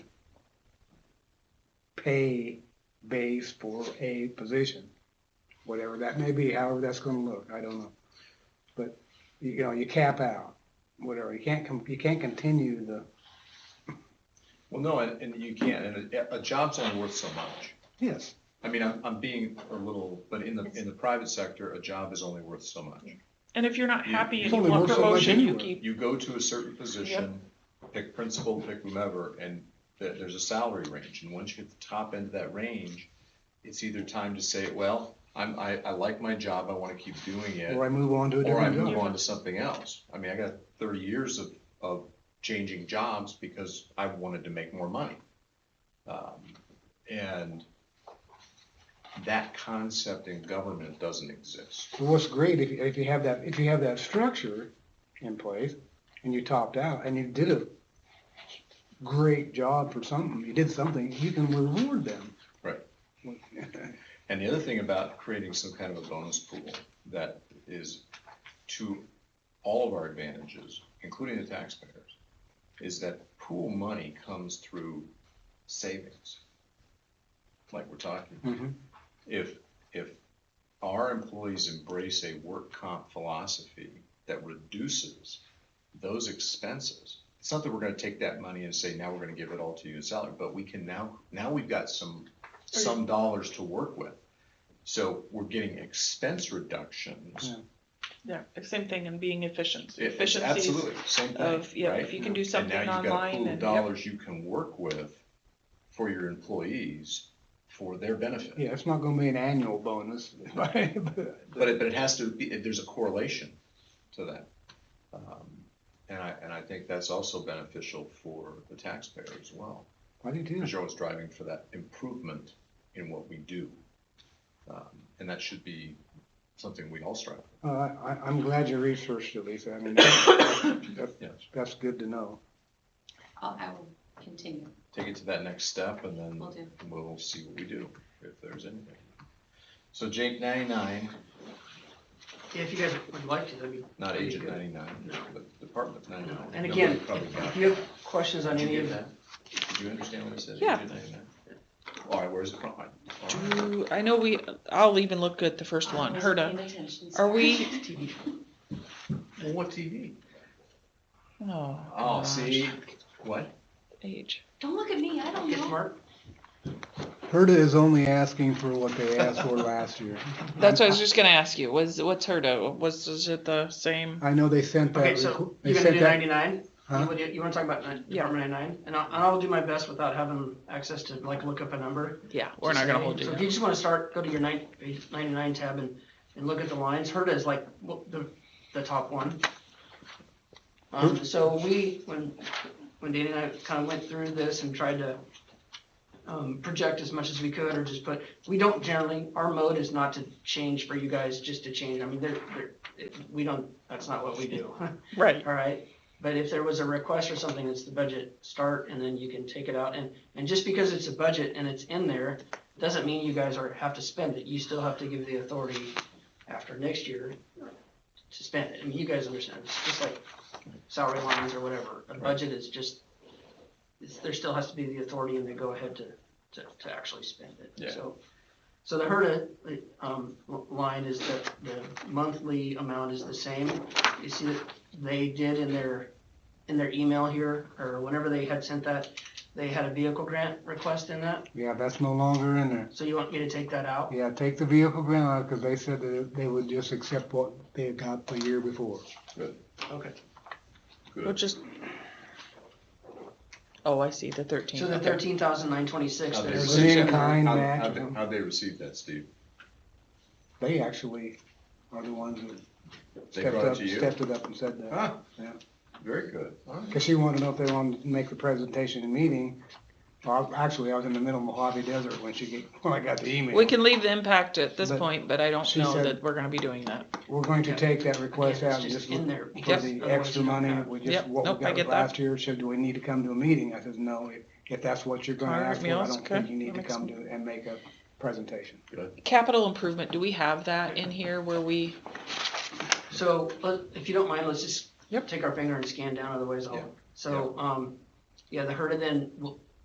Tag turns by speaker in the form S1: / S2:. S1: pay base for a position, whatever that may be, however that's gonna look, I don't know. But, you know, you cap out, whatever, you can't, com- you can't continue the,
S2: Well, no, and, and you can't, and a, a job's only worth so much.
S1: yes,
S2: I mean, I'm, I'm being a little, but in the, in the private sector, a job is only worth so much.
S3: And if you're not happy
S1: It's
S3: and
S1: only
S3: you want
S1: worth so much
S3: promotion, you
S1: anyway.
S3: keep,
S2: You go to a certain position, pick principal, pick whomever, and there, there's a salary range, and once you hit the top end of that range, it's either time to say, well, I'm, I, I like my job, I wanna keep doing it,
S1: or I move on to a
S2: or I
S1: different
S2: move
S1: job.
S2: on to something else. I mean, I got thirty years of, of changing jobs because I wanted to make more money. Um, And that concept in government doesn't exist.
S1: So What's great, if, you- if you have that, if you have that structure in place, and you topped out, and you did a great job for something, you did something, you can reward them. Mm-hmm.
S2: Right. And the other thing about creating some kind of a bonus pool that is to all of our advantages, including the taxpayers, is that pool money comes through savings, like we're talking about.
S1: Mhm.
S2: if, if our employees embrace a work comp philosophy that reduces those expenses, it's not that we're gonna take that money and say, now we're gonna give it all to you in salary, but we can now, now we've got some, some dollars to work with. So we're getting expense reductions.
S1: Yeah.
S3: yeah, same thing and being efficient.
S2: It-
S3: Efficiencies
S2: Absolutely, same thing,
S3: of, yeah,
S2: right?
S3: if you can do something
S2: And now
S3: online
S2: you've got a pool of
S3: and, yep,
S2: dollars you can work with for your employees for their benefit.
S1: Yeah, it's not gonna be an annual bonus, but,
S2: But it, but it has to be, there's a correlation to that. Um, And I, and I think that's also beneficial for the taxpayer as well,
S1: I do too.
S2: because you're always driving for that improvement in what we do. Um, And that should be something we all strive for.
S1: Uh, I, I'm glad you researched it, Lisa. I mean, that,
S2: Yes.
S1: that's good to know.
S4: I'll, I will continue.
S2: Take it to that next step and then
S4: Will do.
S2: we'll see what we do, if there's anything. So Jake ninety-nine,
S5: Yeah, if you guys would like to, that'd be.
S2: not
S5: that'd be
S2: agent
S5: good.
S2: ninety-nine,
S5: No.
S2: but department ninety-nine.
S5: And
S2: Nobody
S5: again,
S2: probably got
S5: If you have questions on
S2: Did
S5: any
S2: you
S5: of
S2: get
S5: that,
S2: that? Did you understand what I said?
S3: Yeah.
S2: Agent 99? All right, where's it from? All right.
S3: do, I know we, I'll even look at the first one,
S4: I wasn't
S3: Herda.
S4: paying attention,
S3: Are
S4: sorry.
S3: we,
S5: TV show.
S2: Well, what TV?
S3: oh.
S2: Oh,
S3: gosh,
S2: see, what?
S3: Age.
S4: Don't look at me, I don't
S5: Get
S4: know.
S5: smart.
S1: Herda is only asking for what they asked for last year.
S3: That's what I was just gonna ask you, was, what's Herda, was, is it the same?
S1: I know they sent that.
S5: Okay, so
S1: requ- they
S5: you're gonna
S1: sent
S5: do
S1: that-
S5: ninety-nine?
S1: Huh?
S5: You wanna- You wanna talk about nine-
S3: Yeah.
S5: Department ninety-nine? And I'll, and I'll do my best without having access to like look up a number.
S3: Yeah, we're not gonna
S5: So
S3: hold
S5: if
S3: you.
S5: you just wanna start, go to your nine- 99 tab and, and look at the lines. Herda is like w- the, the top one. Um, so we, when, when Danny and I kinda went through this and tried to um, project as much as we could or just put, we don't generally, our mode is not to change for you guys just to change. I mean, they're, they're, it- we don't, that's not what we do.
S3: Right,
S5: All right, but if there was a request or something, it's the budget start and then you can take it out and, and just because it's a budget and it's in there, doesn't mean you guys are, have to spend it, you still have to give the authority after next year to spend it, I mean, you guys understand, it's just like salary lines or whatever, a budget is just, it's, there still has to be the authority and the go-ahead to, to, to actually spend
S2: Yeah.
S5: it, so. So the HERDA, um, line is that the monthly amount is the same, you see that they did in their, in their email here, or whenever they had sent that, they had a vehicle grant request in that,
S1: Yeah, that's no longer in there.
S5: so you want me to take that out?
S1: Yeah, take the vehicle grant out, cause they said that they would just accept what they had got the year before.
S5: Okay.
S3: we'll
S2: Good.
S3: just. Oh, I see, the thirteen.
S5: So the
S3: okay.
S5: thirteen thousand nine twenty-six,
S2: How'd they
S1: There's
S5: there's,
S1: an
S2: receive that?
S1: Oh, in-kind
S2: How'd-
S1: match.
S2: how'd they- How'd they receive that, Steve?
S1: They actually are the ones that
S2: They
S1: stepped
S2: brought it
S1: up,
S2: to you?
S1: stepped it up and said that.
S2: Huh,
S1: Yeah.
S2: very good. All right.
S1: Because she wanted to know if they wanted to make the presentation and meeting. Well, actually, I was in the middle of Mojave Desert when she get, when I got the email.
S3: We can leave the impact at this
S1: But
S3: point, but I don't
S1: she
S3: know
S1: said-
S3: that we're gonna be doing that.
S1: We're going to take that request
S5: Again,
S1: out
S5: it's
S1: and
S5: just
S1: just
S5: in
S1: look
S5: there
S1: for
S5: because
S1: the
S5: otherwise
S1: extra
S5: you don't
S1: money,
S5: have-
S1: we
S3: Yep,
S1: just, what
S3: nope,
S1: we
S3: I
S1: got
S3: get
S1: with
S3: that.
S1: last year, said, do we need to come to a meeting? I says, no, if, if that's what you're gonna
S3: All right,
S1: ask for, I
S3: meals,
S1: don't
S3: okay,
S1: think you need
S3: that
S1: to
S3: makes
S1: come to and make a presentation.
S3: Capital improvement, do we have that in here where we,
S5: so, let- if you don't mind, let's just
S3: Yep.
S5: take our finger and scan down, otherwise
S2: Yeah.
S5: I'll, so, um, yeah, the HERDA then, will-